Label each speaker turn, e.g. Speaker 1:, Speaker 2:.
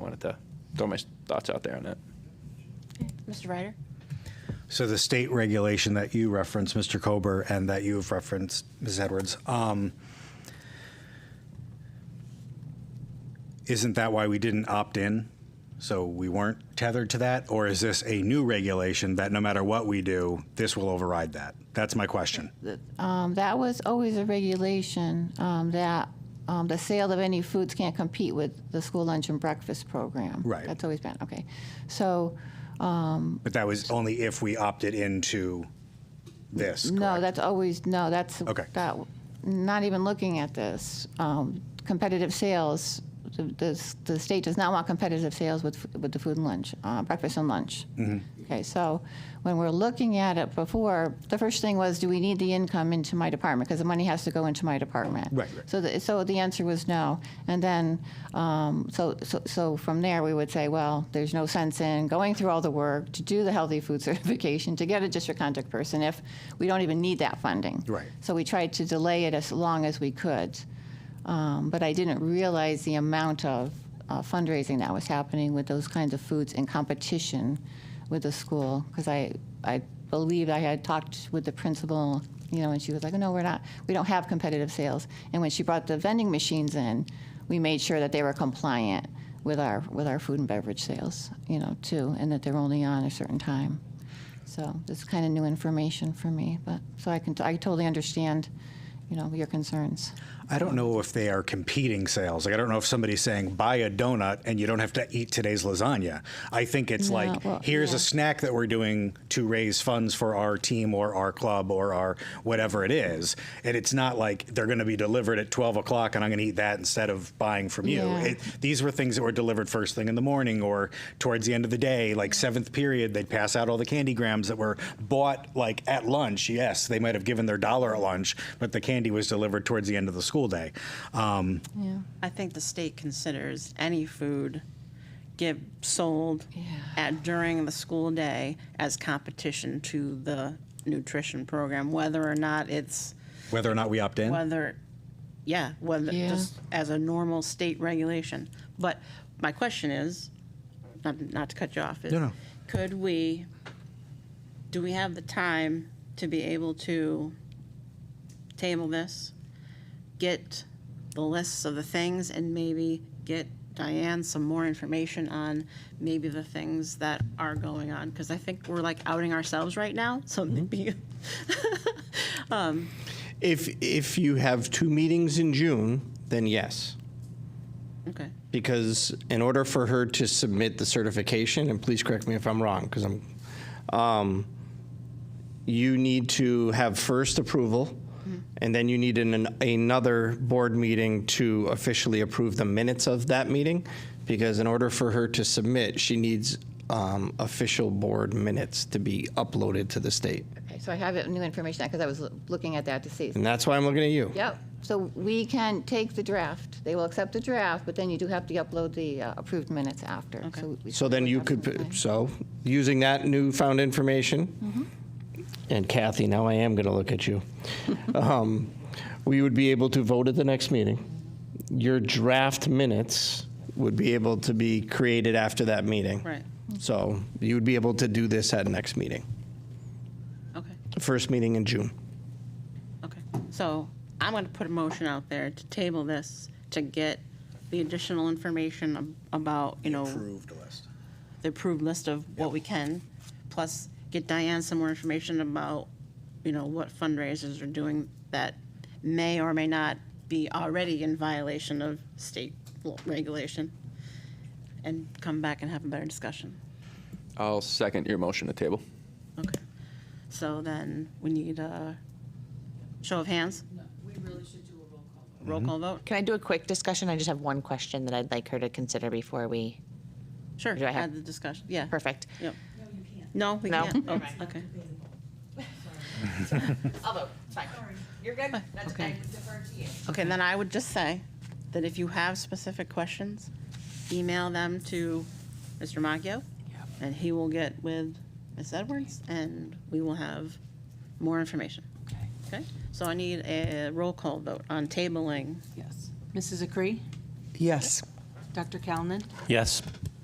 Speaker 1: wanted to throw my thoughts out there on it.
Speaker 2: Mr. Ryder?
Speaker 3: So the state regulation that you referenced, Mr. Kober, and that you have referenced, Ms. Edwards, um, isn't that why we didn't opt in? So we weren't tethered to that? Or is this a new regulation that no matter what we do, this will override that? That's my question.
Speaker 2: Um, that was always a regulation, um, that, um, the sale of any foods can't compete with the school lunch and breakfast program.
Speaker 3: Right.
Speaker 2: That's always been, okay. So,
Speaker 3: But that was only if we opted into this,
Speaker 2: no,
Speaker 3: correct?
Speaker 2: that's always, no, that's.
Speaker 3: Okay.
Speaker 2: That, not even looking at this, um, competitive sales, the, the, the state does not want competitive sales with, f- with the food and lunch, uh, breakfast and lunch.
Speaker 3: Mm-hmm.
Speaker 2: Okay, so when we're looking at it before, the first thing was, do we need the income into my department? Because the money has to go into my department.
Speaker 3: Right, right.
Speaker 2: So, the, so the answer was no. And then, um, so, so, so from there, we would say, well, there's no sense in going through all the work to do the healthy food certification, to get a district contact person if we don't even need that funding.
Speaker 3: Right.
Speaker 2: So we tried to delay it as long as we could. Um, but I didn't realize the amount of uh, fundraising that was happening with those kinds of foods in competition with the school. Because I, I believe I had talked with the principal, you know, and she was like, no, we're not, we don't have competitive sales. And when she brought the vending machines in, we made sure that they were compliant with our, with our food and beverage sales, you know, too, and that they're only on a certain time. So this is kind of new information for me, but, so I can, I totally understand, you know, your concerns.
Speaker 3: I don't know if they are competing sales. Like I don't know if somebody's saying buy a donut and you don't have to eat today's lasagna. I think it's
Speaker 2: No,
Speaker 3: like
Speaker 2: well,
Speaker 3: here's
Speaker 2: yeah.
Speaker 3: a snack that we're doing to raise funds for our team or our club or our whatever it is, and it's not like they're going to be delivered at 12 o'clock and I'm going to eat that instead of buying from you.
Speaker 2: Yeah.
Speaker 3: It, these were things that were delivered first thing in the morning or towards the end of the day, like seventh period. They'd pass out all the candy grams that were bought like at lunch. Yes, they might have given their dollar at lunch, but the candy was delivered towards the end of the school day. Um,
Speaker 4: I think the state considers any food give sold at during the school day as competition to the nutrition program, whether or not it's
Speaker 3: whether or not we opt in,
Speaker 4: whether, yeah, whether
Speaker 2: Yeah.
Speaker 4: just as a normal state regulation. But my question is, not, not to cut you off, is
Speaker 3: No, no.
Speaker 4: could we, do we have the time to be able to table this, get the lists of the things, and maybe get Diane some more information on maybe the things that are going on? Because I think we're like outing ourselves right now. So maybe
Speaker 5: If, if you have two meetings in June, then yes.
Speaker 4: okay.
Speaker 5: Because in order for her to submit the certification, and please correct me if I'm wrong, because I'm, um, you need to have first approval, and then you need an, another board meeting to officially approve the minutes of that meeting. Because in order for her to submit, she needs, um, official board minutes to be uploaded to the state.
Speaker 2: Okay, so I have it- new information, because I was loo- looking at that to see.
Speaker 5: And that's why I'm looking at you.
Speaker 2: Yep, so we can take the draft, they will accept the draft, but then you do have to upload the uh, approved minutes after. So we-
Speaker 5: So then you
Speaker 2: we
Speaker 5: could,
Speaker 2: have some
Speaker 5: put-
Speaker 2: time.
Speaker 5: so, using that newfound information, and Kathy, now I am going to look at you, Um, we would be able to vote at the next meeting. Your draft minutes would be able to be created after that meeting.
Speaker 4: Right.
Speaker 5: So you would be able to do this at next meeting,
Speaker 4: Okay.
Speaker 5: first meeting in June.
Speaker 4: Okay, so I'm gonna put a motion out there to table this, to get the additional information ab- about, you know,
Speaker 3: approved list.
Speaker 4: the approved list of what we can, plus get Diane some more information about, you know, what fundraisers are doing that may or may not be already in violation of state law- regulation, and come back and have a better discussion.
Speaker 1: I'll second your motion to table.
Speaker 4: Okay, so then we need a show of hands? We
Speaker 6: Mm-hmm.
Speaker 4: really should do a roll call vote. Roll call vote?
Speaker 6: Can I do a quick discussion? I just have one question that I'd like her to consider before we,
Speaker 4: Sure,
Speaker 6: Do I have-
Speaker 4: add the discussion, yeah.
Speaker 6: perfect.
Speaker 4: Yep. No, we
Speaker 6: No?
Speaker 4: can't. Oh, okay.
Speaker 6: Although, it's fine. You're good. That's
Speaker 4: Okay.
Speaker 6: defer to you.
Speaker 4: Okay, then I would just say that if you have specific questions, email them to Mr. Macchio, and he will get with Ms. Edwards, and we will have more information. Okay? So I need a roll call vote on tabling.
Speaker 7: Yes. Mrs. Acree?
Speaker 8: Yes.
Speaker 7: Dr. Calnan?
Speaker 9: Yes.